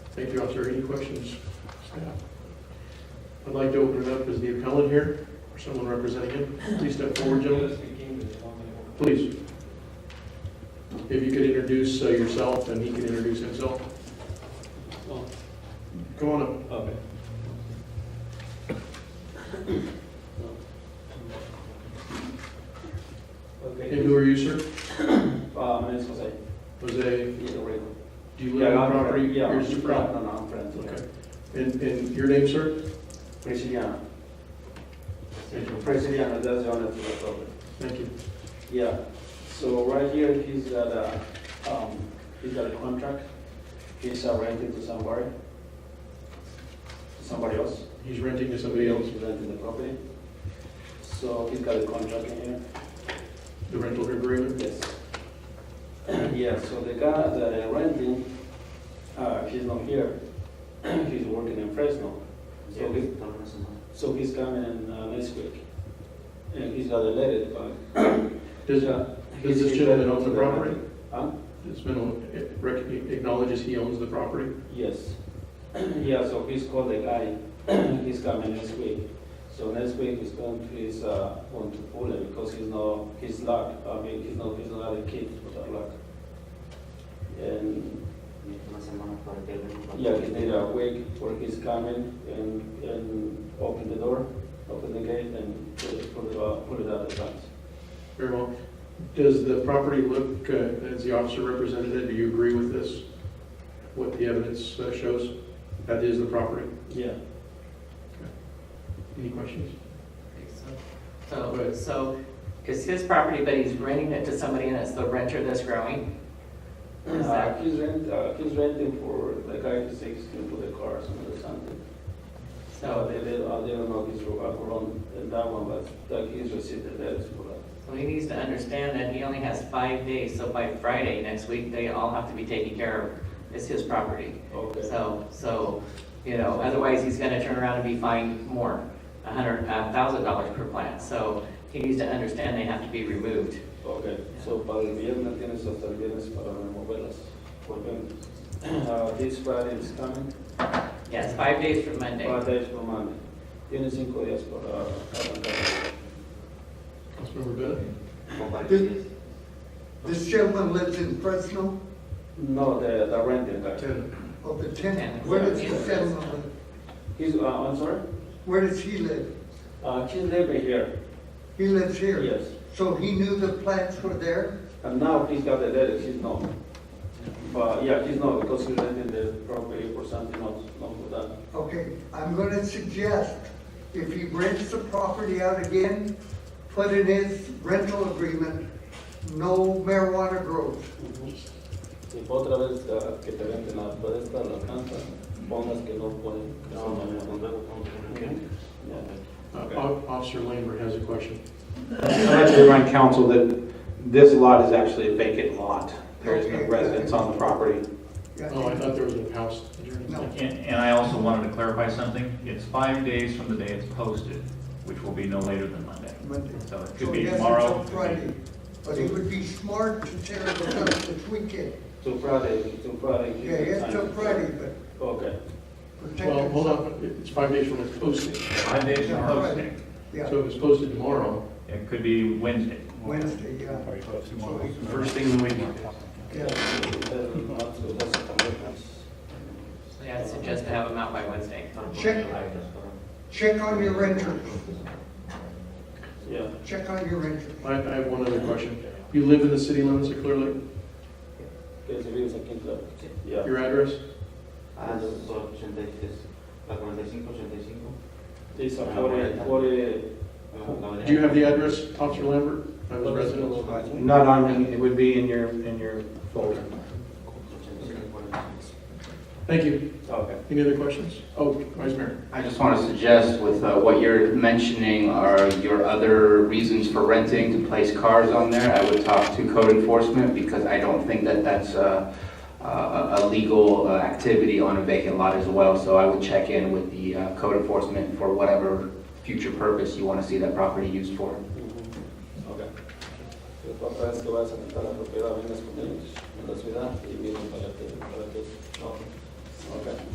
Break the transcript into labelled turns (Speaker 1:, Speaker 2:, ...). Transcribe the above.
Speaker 1: Thank you, officer. Any questions? Staff? I'd like to open it up, is the appellant here, or someone representing him? Please step forward, gentlemen. Please. If you could introduce uh, yourself, and he can introduce himself. Come on up.
Speaker 2: Okay.
Speaker 1: And
Speaker 2: Okay.
Speaker 1: who are you, sir?
Speaker 2: Uh, my name is Jose.
Speaker 1: Jose,
Speaker 2: Yeah, right.
Speaker 1: do you live
Speaker 2: Yeah,
Speaker 1: on
Speaker 2: I'm-
Speaker 1: property?
Speaker 2: Yeah,
Speaker 1: Here's the property.
Speaker 2: no, no, I'm friends.
Speaker 1: Okay. And, and your name, sir?
Speaker 2: Presidiano.
Speaker 1: Thank you.
Speaker 2: Presidiano, that's the owner of the property.
Speaker 1: Thank you.
Speaker 2: Yeah, so right here, he's got a, um, he's got a contract. He's uh, renting to somebody. Somebody else.
Speaker 1: He's renting to somebody else,
Speaker 2: He's renting the property. So he's got a contract in here.
Speaker 1: the rental agreement?
Speaker 2: Yes. Yeah, so the guy that I renting, uh, he's not here, he's working in Fresno. So he, so he's coming in uh, next week. And he's got a letter, but.
Speaker 1: Does,
Speaker 2: uh,
Speaker 1: does
Speaker 2: he's-
Speaker 1: this gentleman own the property?
Speaker 2: Huh?
Speaker 1: This man it rec- acknowledges he owns the property?
Speaker 2: Yes. Yeah, so he's called the guy, he's coming next week. So next week he's going to, he's, uh, going to Poland because he's not, he's luck, I mean, he's not, he's not a kid without luck. And Yeah, he did a wig for his coming and, and open the door, open the gate and put it, put it out, put it out of bounds.
Speaker 1: Very well. Does the property look, uh, as the officer represented it, do you agree with this? What the evidence uh, shows? That is the property.
Speaker 2: Yeah.
Speaker 1: Any questions?
Speaker 3: So, so it's his property, but he's renting it to somebody and it's the renter that's growing? Is
Speaker 2: Uh,
Speaker 3: that-
Speaker 2: he's rent, uh, he's renting for the guy who says he's gonna put the cars or something. So
Speaker 3: So,
Speaker 2: they, they, uh, they don't know if he's wrong, wrong in that one, but like he's received the letters for that.
Speaker 3: so he needs to understand that he only has five days, so by Friday next week, they all have to be taken care of. It's his property.
Speaker 2: Okay.
Speaker 3: So, so, you know, otherwise he's gonna turn around and be fined more, a hundred, a thousand dollars per plant. So he needs to understand they have to be removed.
Speaker 2: Okay, so para el viernes tienes hasta el viernes para removerlas. Porque, uh, this Friday is coming.
Speaker 3: Yes, five days from Monday.
Speaker 2: Five days from Monday. Tienes cinco días para arrancar.
Speaker 1: Councilmember Bennett?
Speaker 4: This gentleman lives in Fresno,
Speaker 2: No, the, the renting guy.
Speaker 1: Ten.
Speaker 4: of the tenant. Where does this gentleman live?
Speaker 2: He's, uh, I'm sorry?
Speaker 4: Where does he live?
Speaker 2: Uh, he's living here,
Speaker 4: He lives here.
Speaker 2: yes.
Speaker 4: So he knew the plants were there?
Speaker 2: And now he's got the letter, he's not. But, yeah, he's not, because he's renting the property for something else, not for that.
Speaker 4: Okay, I'm gonna suggest, if he rents the property out again, put in his rental agreement, no marijuana grows.
Speaker 1: Uh,
Speaker 2: Y otra vez uh, que te venden la puesta, la planta, pongas que no pueden. que son de marihuana. Yeah.
Speaker 1: Uh, O- Officer Lambert has a question.
Speaker 5: I'd like to remind council that this lot is actually a vacant lot. There is no
Speaker 4: Okay.
Speaker 5: residence on the property.
Speaker 1: Oh, I thought there was a house adjourned.
Speaker 4: No.
Speaker 6: And, and I also wanted to clarify something. It's five days from the day it's posted, which will be no later than Monday.
Speaker 4: Monday.
Speaker 6: So it
Speaker 4: So
Speaker 6: could be
Speaker 4: he has
Speaker 6: tomorrow.
Speaker 4: until Friday, but it would be smart to tear it up this weekend.
Speaker 2: Till Friday, till Friday.
Speaker 4: Yeah, it's till Friday, but
Speaker 2: Okay.
Speaker 4: protect
Speaker 1: Well, hold
Speaker 4: yourself.
Speaker 1: on, it's five days from its posting.
Speaker 6: Five days from posting.
Speaker 4: Yeah.
Speaker 1: So if it's posted tomorrow,
Speaker 6: It could be Wednesday.
Speaker 4: Wednesday, yeah.
Speaker 1: first thing in the week.
Speaker 4: Yeah,
Speaker 3: So yeah, I'd suggest to have them out by Wednesday.
Speaker 4: check, check on your renters,
Speaker 2: Yeah.
Speaker 4: check on your renters.
Speaker 1: I, I have one other question. You live in the city limits of Clear Lake?
Speaker 2: Que se vive aquí, claro. Yeah.
Speaker 1: Your address?
Speaker 7: Ah, son 83, la 45, 85.
Speaker 2: It's a forty, forty,
Speaker 7: la
Speaker 1: Do you have the address, Officer Lambert? I was resident.
Speaker 5: Not on, it would be in your, in your folder.
Speaker 7: 85, 45.
Speaker 1: Thank you.
Speaker 2: Oh, okay.
Speaker 1: Any other questions? Oh, Vice Mayor.
Speaker 8: I just want to suggest with uh, what you're mentioning are your other reasons for renting to place cars on there. I would talk to code enforcement because I don't think that that's uh, a a legal uh, activity on a vacant lot as well. So I would check in with the uh, code enforcement for whatever future purpose you want to see that property used for.
Speaker 2: Okay. La próxima vez que vayas a rentar la propiedad, vengas con ellos en la ciudad y vienen para que, para que, no. Okay.